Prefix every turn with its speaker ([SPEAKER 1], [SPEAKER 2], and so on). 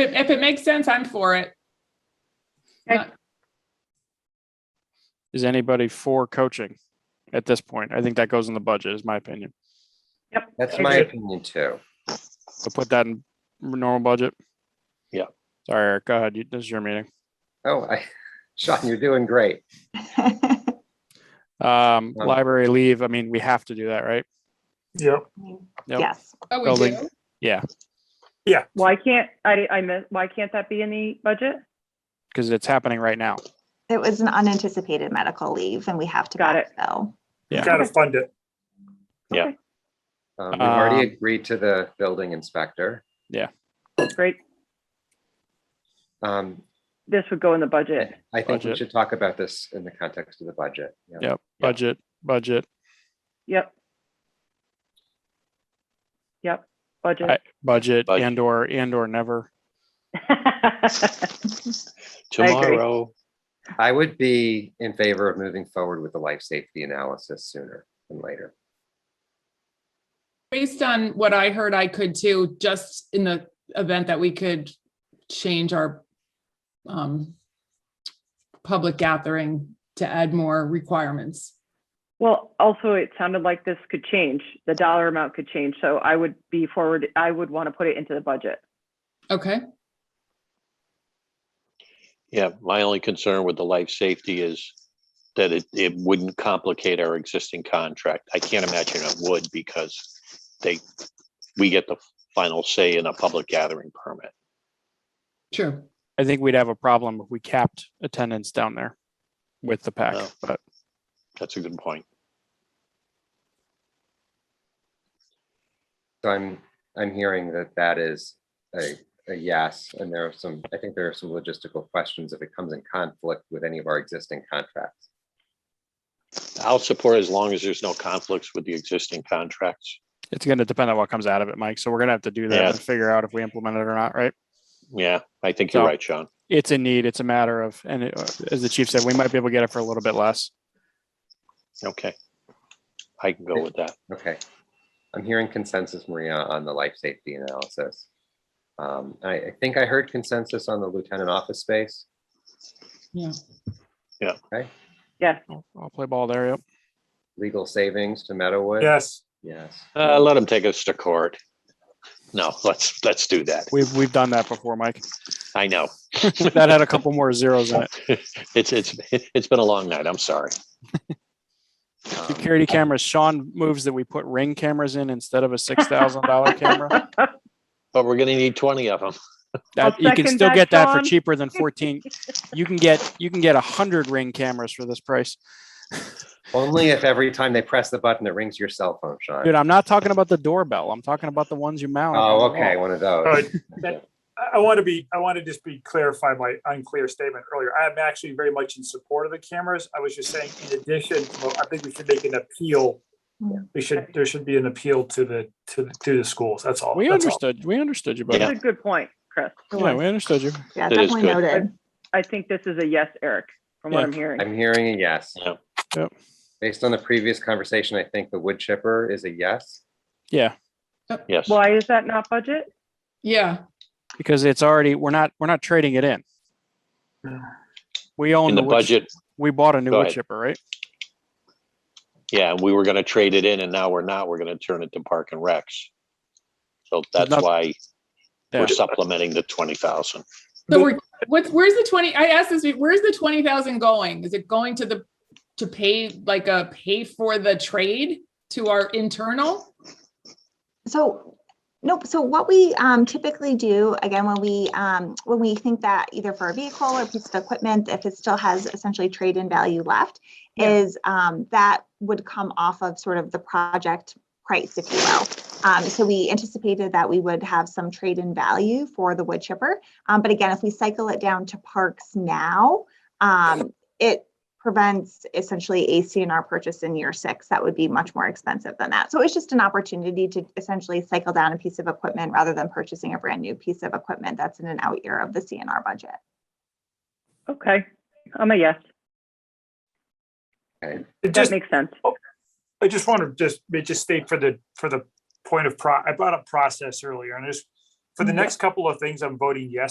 [SPEAKER 1] If if it makes sense, I'm for it.
[SPEAKER 2] Is anybody for coaching at this point? I think that goes in the budget is my opinion.
[SPEAKER 3] That's
[SPEAKER 2] I
[SPEAKER 3] my
[SPEAKER 2] agree.
[SPEAKER 3] opinion too.
[SPEAKER 2] So put that in normal budget.
[SPEAKER 4] Yeah.
[SPEAKER 2] Sorry, Eric, go ahead. You- This is your meeting.
[SPEAKER 3] Oh, I, Sean, you're doing great.
[SPEAKER 2] Um,
[SPEAKER 4] Uh,
[SPEAKER 3] Um,
[SPEAKER 2] library leave, I mean, we have to do that, right?
[SPEAKER 5] Yep.
[SPEAKER 2] Yep.
[SPEAKER 6] Yes,
[SPEAKER 1] Oh, we
[SPEAKER 2] Building.
[SPEAKER 1] do?
[SPEAKER 2] Yeah,
[SPEAKER 7] Why can't, I, I miss, why can't that be in the budget?
[SPEAKER 2] because it's happening right now.
[SPEAKER 6] it was an unanticipated medical leave and we have to
[SPEAKER 7] Got it.
[SPEAKER 6] backfill.
[SPEAKER 2] Yeah.
[SPEAKER 5] Gotta fund it.
[SPEAKER 3] Um, We've already
[SPEAKER 2] Um,
[SPEAKER 3] agreed to the building inspector.
[SPEAKER 7] Great,
[SPEAKER 3] Um,
[SPEAKER 7] this would go in the budget.
[SPEAKER 3] I think we
[SPEAKER 2] Budget.
[SPEAKER 3] should talk about this in the context of the budget. Yeah.
[SPEAKER 2] Yep, budget, budget,
[SPEAKER 7] Yep. Yep,
[SPEAKER 2] I-
[SPEAKER 7] budget.
[SPEAKER 2] budget
[SPEAKER 4] Budget.
[SPEAKER 2] and or, and or never.
[SPEAKER 7] agree.
[SPEAKER 4] Tomorrow,
[SPEAKER 3] I would be in favor of moving forward with the life safety analysis sooner than later.
[SPEAKER 1] Based on what I heard, I could too, just in the event that we could change our um, public gathering to add more requirements.
[SPEAKER 7] Well, also, it sounded like this could change, the dollar amount could change, so I would be forward, I would want to put it into the budget.
[SPEAKER 1] Okay,
[SPEAKER 4] yeah, my only concern with the life safety is that it, it wouldn't complicate our existing contract. I can't imagine it would because they, we get the final say in a public gathering permit.
[SPEAKER 1] sure.
[SPEAKER 2] I think we'd have a problem if we capped attendance down there with the pack,
[SPEAKER 4] No.
[SPEAKER 2] but
[SPEAKER 4] That's a good point.
[SPEAKER 3] So I'm, I'm hearing that that is a, a yes, and there are some, I think there are some logistical questions if it comes in conflict with any of our existing contracts.
[SPEAKER 4] I'll support as long as there's no conflicts with the existing contracts.
[SPEAKER 2] it's gonna depend on what comes out of it, Mike. So we're gonna have to do that
[SPEAKER 4] Yeah.
[SPEAKER 2] and figure out if we implement it or not, right?
[SPEAKER 4] Yeah, I think you're
[SPEAKER 2] So-
[SPEAKER 4] right, Sean.
[SPEAKER 2] it's a need. It's a matter of, and it- uh, as the chief said, we might be able to get it for a little bit less.
[SPEAKER 4] Okay. I can go with that.
[SPEAKER 3] Okay. I'm hearing consensus, Maria, on the life safety analysis. Um, I, I think I heard consensus on the lieutenant office space.
[SPEAKER 1] Yeah.
[SPEAKER 7] Yes,
[SPEAKER 2] I'll, I'll play ball there. Yep.
[SPEAKER 3] legal savings to Meadowwood?
[SPEAKER 5] Yes.
[SPEAKER 3] Yes.
[SPEAKER 4] Uh, let them take us to court. No, let's, let's do that.
[SPEAKER 2] We've we've done that before, Mike.
[SPEAKER 4] I know.
[SPEAKER 2] That had a couple more zeros in it.
[SPEAKER 4] It's, it's, it's been a long night. I'm sorry.
[SPEAKER 3] Um,
[SPEAKER 2] Security cameras. Sean moves that we put ring cameras in instead of a six thousand dollar camera.
[SPEAKER 4] But we're gonna need twenty of them.
[SPEAKER 2] That
[SPEAKER 7] I'll
[SPEAKER 2] you can
[SPEAKER 7] second
[SPEAKER 2] still
[SPEAKER 7] that,
[SPEAKER 2] get that for
[SPEAKER 7] Sean.
[SPEAKER 2] cheaper than fourteen. You can get you can get a hundred ring cameras for this price,
[SPEAKER 3] Only if every time they press the button, it rings your cell phone,
[SPEAKER 2] dude.
[SPEAKER 3] Sean.
[SPEAKER 2] I'm not talking about the doorbell. I'm talking about the ones you mount. on the
[SPEAKER 3] Oh,
[SPEAKER 2] wall.
[SPEAKER 3] okay, one of
[SPEAKER 5] All right.
[SPEAKER 3] those.
[SPEAKER 5] That- I, I want to be, I want to just be clarify my unclear statement earlier. I am actually very much in support of the cameras. I was just saying, in addition, well, I think we should make an appeal.
[SPEAKER 6] Yeah.
[SPEAKER 5] We should, there should be an appeal to the, to, the to the schools. That's all.
[SPEAKER 2] We
[SPEAKER 5] That's all.
[SPEAKER 2] understood. We understood you, buddy.
[SPEAKER 7] that's
[SPEAKER 2] Yeah,
[SPEAKER 7] a good point, Chris.
[SPEAKER 2] we understood you.
[SPEAKER 6] Yeah,
[SPEAKER 4] That is
[SPEAKER 6] definitely
[SPEAKER 4] good.
[SPEAKER 6] noted.
[SPEAKER 7] I think this is a yes, Eric, from what
[SPEAKER 2] Yeah.
[SPEAKER 7] I'm hearing.
[SPEAKER 3] I'm hearing a yes.
[SPEAKER 4] Yeah.
[SPEAKER 2] Yep.
[SPEAKER 3] Based on the previous conversation, I think the wood chipper is a yes.
[SPEAKER 2] Yeah,
[SPEAKER 4] Yes.
[SPEAKER 7] Why is that not budget?
[SPEAKER 1] Yeah,
[SPEAKER 2] because it's already we're not we're not trading it in. We own
[SPEAKER 4] In the
[SPEAKER 2] wood chip-
[SPEAKER 4] budget,
[SPEAKER 2] We bought a new
[SPEAKER 4] Go
[SPEAKER 2] wood
[SPEAKER 4] ahead.
[SPEAKER 2] chipper, right?
[SPEAKER 4] yeah, we were gonna trade it in and now we're not. We're gonna turn it to park and recs. So that's
[SPEAKER 2] not-
[SPEAKER 4] why
[SPEAKER 2] Yeah.
[SPEAKER 4] we're supplementing the twenty thousand.
[SPEAKER 1] so
[SPEAKER 5] But-
[SPEAKER 1] we're, what's, where's the twenty, I asked this, where's the twenty thousand going? Is it going to the, to pay, like a pay for the trade to our internal?
[SPEAKER 6] So, nope, so what we um, typically do, again, when we, um, when we think that either for a vehicle or piece of equipment, if it still has essentially trade-in value left,
[SPEAKER 1] Yeah.
[SPEAKER 6] is um, that would come off of sort of the project price, if you will. Um, So we anticipated that we would have some trade-in value for the wood chipper. Um, But again, if we cycle it down to parks now, um, it prevents essentially a CNR purchase in year six. That would be much more expensive than that. So it's just an opportunity to essentially cycle down a piece of equipment rather than purchasing a brand new piece of equipment that's in an out year of the CNR budget.
[SPEAKER 7] Okay, I'm a yes.
[SPEAKER 5] It
[SPEAKER 7] That
[SPEAKER 5] just,
[SPEAKER 7] makes sense.
[SPEAKER 5] I just want to just, ma- just state for the, for the point of pro, I brought up process earlier and just for the next couple of things, I'm voting yes